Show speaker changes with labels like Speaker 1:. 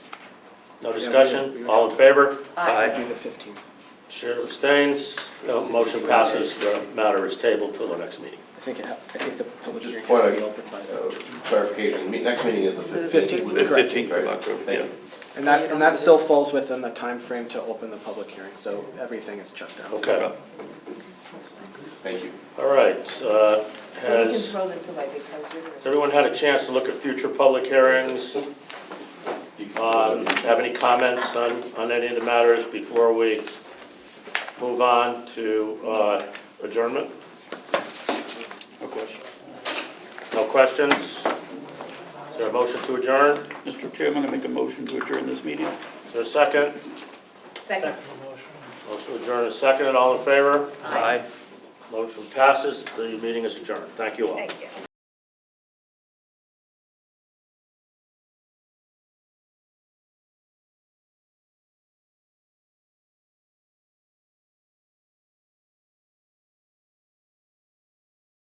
Speaker 1: No discussion? All in favor?
Speaker 2: Aye.
Speaker 3: It'd be the 15th.
Speaker 1: Chair abstains. No, motion passes. The matter is tabled till the next meeting.
Speaker 3: I think it, ha- I think the public hearing
Speaker 4: point
Speaker 3: will be
Speaker 4: out-
Speaker 3: open by then.
Speaker 4: Uh, Clarification, me- next meeting is the
Speaker 3: Fifteenth.
Speaker 4: 15th.
Speaker 5: The
Speaker 3: Correct.
Speaker 5: 15th of October, yeah.
Speaker 3: And that, and that still falls within the time frame to open the public hearing, so everything is checked out.
Speaker 1: Okay,
Speaker 4: Thank you.
Speaker 1: all right. uh,
Speaker 2: So we can
Speaker 1: Has,
Speaker 2: throw this away because you're.
Speaker 1: has everyone had a chance to look at future public hearings? Um, Have any comments on, on any of the matters before we move on to uh, adjournment?
Speaker 5: No question.
Speaker 1: No questions? Is there a motion to adjourn?
Speaker 5: Mr. Chairman, I make a motion to adjourn this meeting.
Speaker 1: Is there a second?
Speaker 2: Second.
Speaker 1: Motion to adjourn is second, and all in favor?
Speaker 5: Aye.
Speaker 1: Motion passes, the meeting is adjourned. Thank you all.
Speaker 2: Thank you.